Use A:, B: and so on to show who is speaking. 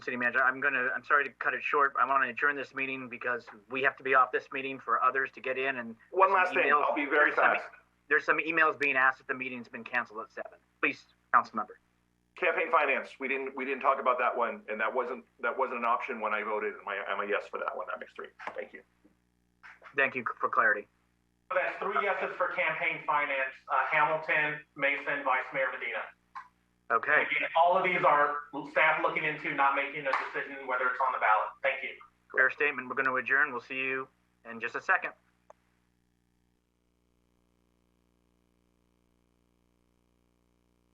A: City Manager, I'm gonna, I'm sorry to cut it short. I want to adjourn this meeting because we have to be off this meeting for others to get in and.
B: One last thing,
A: emails-
B: I'll be very
A: there's some-
B: fast.
A: There's some emails being asked if the meeting's been canceled at seven. Please, council member.
B: Campaign finance, we didn't, we didn't talk about that one, and that wasn't, that wasn't an option when I voted, and my, I'm a yes for that one, that makes three, thank you.
A: Thank you for clarity.
C: So That's three yeses for campaign finance, uh, Hamilton, Mason, Vice Mayor Medina.
A: Okay,
C: Again, all of these are staff looking into, not making a decision whether it's on the ballot. Thank you.
A: fair statement. We're gonna adjourn. We'll see you in just a second.